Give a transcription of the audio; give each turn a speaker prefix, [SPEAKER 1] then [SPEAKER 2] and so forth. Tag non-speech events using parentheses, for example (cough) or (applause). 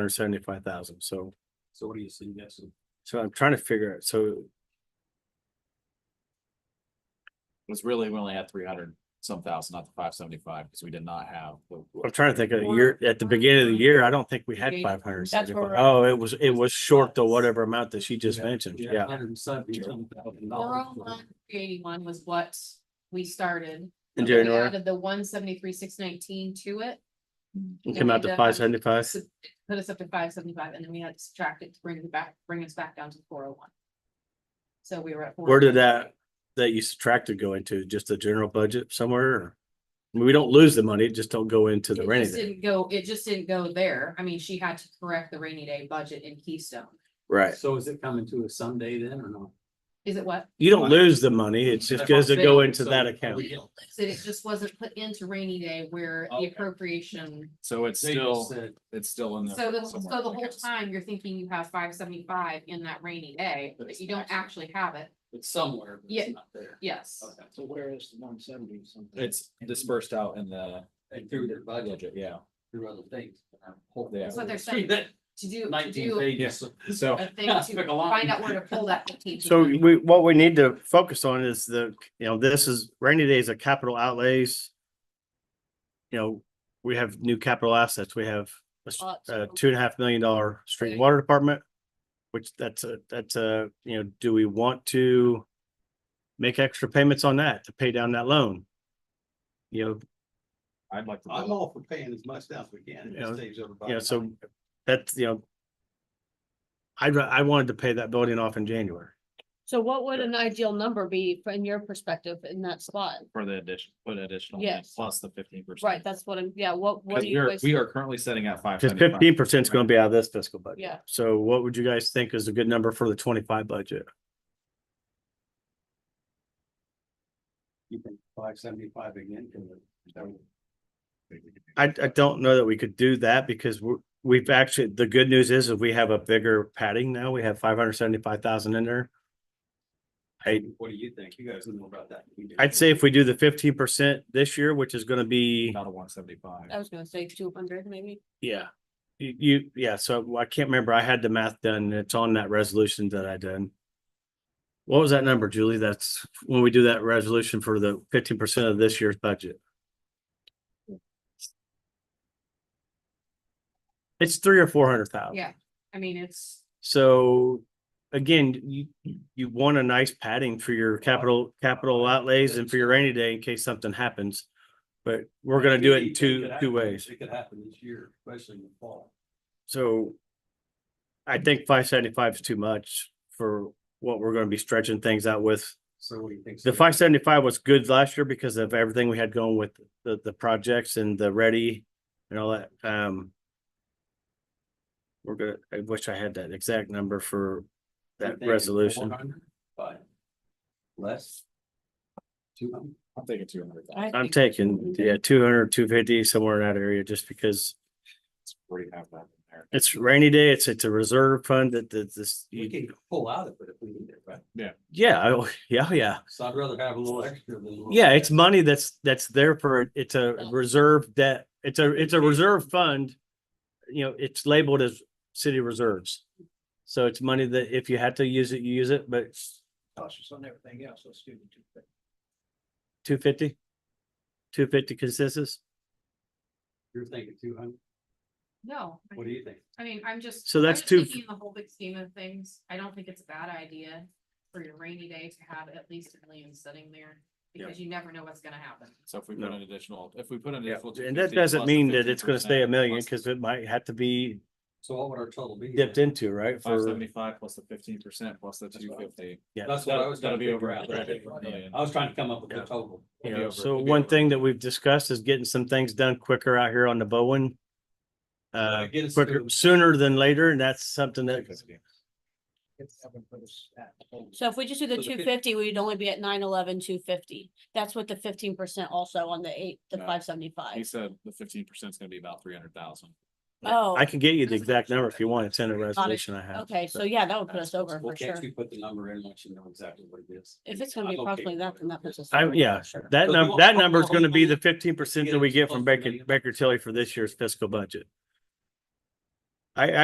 [SPEAKER 1] hundred seventy-five thousand, so,
[SPEAKER 2] So what are you suggesting?
[SPEAKER 1] so I'm trying to figure out, so
[SPEAKER 2] It's really, we only had three hundred some thousand, not the five seventy-five, because we did not have. the-
[SPEAKER 1] I'm trying to think of the year, at the beginning of the year, I don't think we had
[SPEAKER 3] Okay,
[SPEAKER 1] five hundred
[SPEAKER 3] that's where
[SPEAKER 1] seventy-five.
[SPEAKER 3] we're at.
[SPEAKER 1] Oh, it was, it was short the whatever amount that she just mentioned, yeah.
[SPEAKER 2] Hundred and seventy some thousand
[SPEAKER 3] Four oh one, three eighty-one was what we started.
[SPEAKER 1] In
[SPEAKER 3] We
[SPEAKER 1] January,
[SPEAKER 3] Added the one seventy-three, six nineteen to it,
[SPEAKER 1] it came out to five seventy-five,
[SPEAKER 3] so put us up to five seventy-five, and then we had to subtract it to bring it back, bring us back down to four oh one. So we were at. oh
[SPEAKER 1] Where did that- that you subtracted go into, just the general budget somewhere? or- I mean, We don't lose the money, it just don't go into the
[SPEAKER 3] It
[SPEAKER 1] rainy
[SPEAKER 3] just
[SPEAKER 1] day.
[SPEAKER 3] didn't go, it just didn't go there. I mean, she had to correct the rainy day budget in Keystone.
[SPEAKER 1] Right.
[SPEAKER 2] So is it coming to a Sunday then or not?
[SPEAKER 3] Is it what?
[SPEAKER 1] You don't lose the money, it just goes to go into that account.
[SPEAKER 3] So it just wasn't put into rainy day where the
[SPEAKER 2] Okay.
[SPEAKER 3] appropriation.
[SPEAKER 4] So it's
[SPEAKER 2] They just
[SPEAKER 4] still,
[SPEAKER 2] said,
[SPEAKER 4] it's still in there.
[SPEAKER 3] So the, so
[SPEAKER 4] somewhere,
[SPEAKER 3] the
[SPEAKER 4] I
[SPEAKER 3] whole
[SPEAKER 4] guess.
[SPEAKER 3] time you're thinking you have five seventy-five in that rainy day,
[SPEAKER 2] But
[SPEAKER 3] but
[SPEAKER 2] it's
[SPEAKER 3] you don't
[SPEAKER 2] actually-
[SPEAKER 3] actually have it.
[SPEAKER 2] it's somewhere, but
[SPEAKER 3] Yeah.
[SPEAKER 2] it's not there.
[SPEAKER 3] Yes.
[SPEAKER 2] So where is the one seventy something?
[SPEAKER 4] It's dispersed out in the
[SPEAKER 2] They threw their budget
[SPEAKER 4] budget, yeah.
[SPEAKER 2] through other things. but I'm
[SPEAKER 4] Yeah.
[SPEAKER 2] hoping
[SPEAKER 3] That's what they're saying.
[SPEAKER 2] That
[SPEAKER 3] To do, to
[SPEAKER 2] nineteen
[SPEAKER 3] do
[SPEAKER 2] pages.
[SPEAKER 4] So
[SPEAKER 3] a thing
[SPEAKER 2] That's
[SPEAKER 3] to
[SPEAKER 2] like a lot.
[SPEAKER 3] find out where to pull that. 15.
[SPEAKER 1] So we, what we need to focus on is the, you know, this is rainy days are capital outlays. You know, we have new capital assets. We have a s-
[SPEAKER 3] Lots
[SPEAKER 1] a
[SPEAKER 3] of-
[SPEAKER 1] two and a half million dollar street
[SPEAKER 3] Okay.
[SPEAKER 1] and water department. Which that's a, that's a, you know, do we want to make extra payments on that to pay down that loan? You know,
[SPEAKER 4] I'd like to.
[SPEAKER 5] I'm all for paying as much down as we can.
[SPEAKER 1] Yeah,
[SPEAKER 5] It saves everybody.
[SPEAKER 1] you know, so
[SPEAKER 5] money.
[SPEAKER 1] that's, you know. I, I wanted to pay that building off in January.
[SPEAKER 6] So what would an ideal number be from your perspective in that spot?
[SPEAKER 4] For the addition, put additional. in,
[SPEAKER 6] Yes.
[SPEAKER 4] Plus the fifteen percent.
[SPEAKER 6] Right, that's what I'm, yeah, what, what
[SPEAKER 4] Cause
[SPEAKER 6] do
[SPEAKER 4] we
[SPEAKER 6] you
[SPEAKER 4] are,
[SPEAKER 6] guys-
[SPEAKER 4] we are currently setting at five.
[SPEAKER 1] Cause fifteen percent is gonna be out of this fiscal budget.
[SPEAKER 6] Yeah,
[SPEAKER 1] So what would you guys think is a good number for the twenty-five budget?
[SPEAKER 5] You think five seventy-five again? uh, can we- is that what-
[SPEAKER 1] I, I don't know that we could do that because we're, we've actually, the good news is, is we have a bigger padding now. We have five hundred seventy-five thousand in there. I-
[SPEAKER 5] What do you think? You guys know about that. You do.
[SPEAKER 1] I'd say if we do the fifteen percent this year, which is gonna be,
[SPEAKER 4] Not a one seventy-five.
[SPEAKER 6] I was gonna say two hundred maybe.
[SPEAKER 1] yeah. You, you, yeah, so I can't remember. I had the math done. and It's on that resolution that I done. What was that number, Julie? That's when we do that resolution for the fifteen percent of this year's budget. It's three or four hundred thousand.
[SPEAKER 3] Yeah, I mean, it's,
[SPEAKER 1] So again, you, you want a nice padding for your capital, capital outlays and for your rainy day in case something happens. But we're gonna do it in
[SPEAKER 5] could
[SPEAKER 1] two,
[SPEAKER 5] happen.
[SPEAKER 1] two ways.
[SPEAKER 5] It could happen this year, especially in the fall.
[SPEAKER 1] So I think five seventy-five is too much for what we're gonna be stretching things out with.
[SPEAKER 5] So what do you think?
[SPEAKER 1] The five seventy-five was good last year because of everything we had going with the, the projects and the ready and all that, um. We're gonna, I wish I had that exact number for that resolution.
[SPEAKER 5] But less. Two hundred.
[SPEAKER 4] I'm thinking two hundred thousand.
[SPEAKER 6] I
[SPEAKER 1] I'm
[SPEAKER 6] think-
[SPEAKER 1] taking, yeah, 200, 250 somewhere in that area, just because
[SPEAKER 4] It's pretty half that in there.
[SPEAKER 1] it's rainy day, it's, it's a reserve fund that, that this,
[SPEAKER 5] We
[SPEAKER 1] you-
[SPEAKER 5] can pull out of it if we need it, right?
[SPEAKER 1] yeah, I- (laughs) yeah, yeah.
[SPEAKER 5] So I'd rather have a little extra than. a little
[SPEAKER 1] Yeah, it's
[SPEAKER 5] less.
[SPEAKER 1] money that's, that's there for, it's a reserve debt, it's a, it's a reserve fund. You know, it's labeled as city reserves. So it's money that if you had to use it, you use it, but
[SPEAKER 5] Cautious on everything else, let's do the two things.
[SPEAKER 1] two fifty? Two fifty consensus?
[SPEAKER 5] You're thinking two hundred?
[SPEAKER 3] no,
[SPEAKER 5] What do you think?
[SPEAKER 3] I mean, I'm just.
[SPEAKER 1] So
[SPEAKER 3] I'm
[SPEAKER 1] that's
[SPEAKER 3] just
[SPEAKER 1] two-
[SPEAKER 3] thinking in The whole big scheme of things, I don't think it's a bad idea for your rainy day to have at least a million sitting there,
[SPEAKER 1] Yeah.
[SPEAKER 3] because you never know what's gonna happen.
[SPEAKER 4] So if we put
[SPEAKER 1] No.
[SPEAKER 4] an additional, if we put an
[SPEAKER 1] Yeah,
[SPEAKER 4] additional.
[SPEAKER 1] and that
[SPEAKER 4] 250
[SPEAKER 1] doesn't
[SPEAKER 4] plus the
[SPEAKER 1] mean that it's gonna stay a
[SPEAKER 4] 15%,
[SPEAKER 1] million,
[SPEAKER 4] plus
[SPEAKER 1] cause it might have to be
[SPEAKER 5] So what would our total be?
[SPEAKER 1] dipped into, right?
[SPEAKER 4] Five
[SPEAKER 1] For,
[SPEAKER 4] seventy-five plus the fifteen percent plus the
[SPEAKER 5] That's
[SPEAKER 4] two
[SPEAKER 5] what I-
[SPEAKER 4] fifty.
[SPEAKER 5] That's what I was gonna
[SPEAKER 4] That'll be
[SPEAKER 5] figure
[SPEAKER 4] over.
[SPEAKER 5] out.
[SPEAKER 4] a hundred million.
[SPEAKER 5] I was trying to come up with
[SPEAKER 1] Yeah.
[SPEAKER 5] the total.
[SPEAKER 1] you
[SPEAKER 4] It'd be
[SPEAKER 1] know,
[SPEAKER 4] over-
[SPEAKER 1] so
[SPEAKER 4] it'd be
[SPEAKER 1] one
[SPEAKER 4] over.
[SPEAKER 1] thing that we've discussed is getting some things done quicker out here on the Bowen. Uh,
[SPEAKER 5] Get us
[SPEAKER 1] quicker,
[SPEAKER 5] to-
[SPEAKER 1] sooner than later, and that's something that,
[SPEAKER 6] So if we just do
[SPEAKER 5] So
[SPEAKER 6] the
[SPEAKER 5] the fif-
[SPEAKER 6] two fifty, we'd only be at nine eleven, two fifty. That's what the fifteen percent also on the eight, the
[SPEAKER 4] No.
[SPEAKER 6] five
[SPEAKER 4] He
[SPEAKER 6] seventy-five.
[SPEAKER 4] said the fifteen percent is gonna be about three hundred thousand.
[SPEAKER 6] Oh,
[SPEAKER 1] I can get you the exact number if you want, it's in the resolution I have.
[SPEAKER 6] okay, so yeah, that would put
[SPEAKER 4] That's
[SPEAKER 6] us over
[SPEAKER 5] Well,
[SPEAKER 6] for sure.
[SPEAKER 5] can't you put the number in once you know exactly what it is?
[SPEAKER 6] If it's gonna be
[SPEAKER 5] I'm okay
[SPEAKER 6] approximately
[SPEAKER 5] with
[SPEAKER 6] that,
[SPEAKER 5] it.
[SPEAKER 6] then that puts us.
[SPEAKER 1] I,
[SPEAKER 6] over for
[SPEAKER 1] yeah,
[SPEAKER 6] sure.
[SPEAKER 1] that
[SPEAKER 5] So
[SPEAKER 1] number,
[SPEAKER 5] we
[SPEAKER 1] that
[SPEAKER 5] want-
[SPEAKER 1] number is gonna be the
[SPEAKER 5] hopefully
[SPEAKER 1] fifteen percent
[SPEAKER 5] get
[SPEAKER 1] that we
[SPEAKER 5] us
[SPEAKER 1] get from
[SPEAKER 5] close to a
[SPEAKER 1] Baker,
[SPEAKER 5] million.
[SPEAKER 1] Baker Tilly for this year's fiscal budget. I,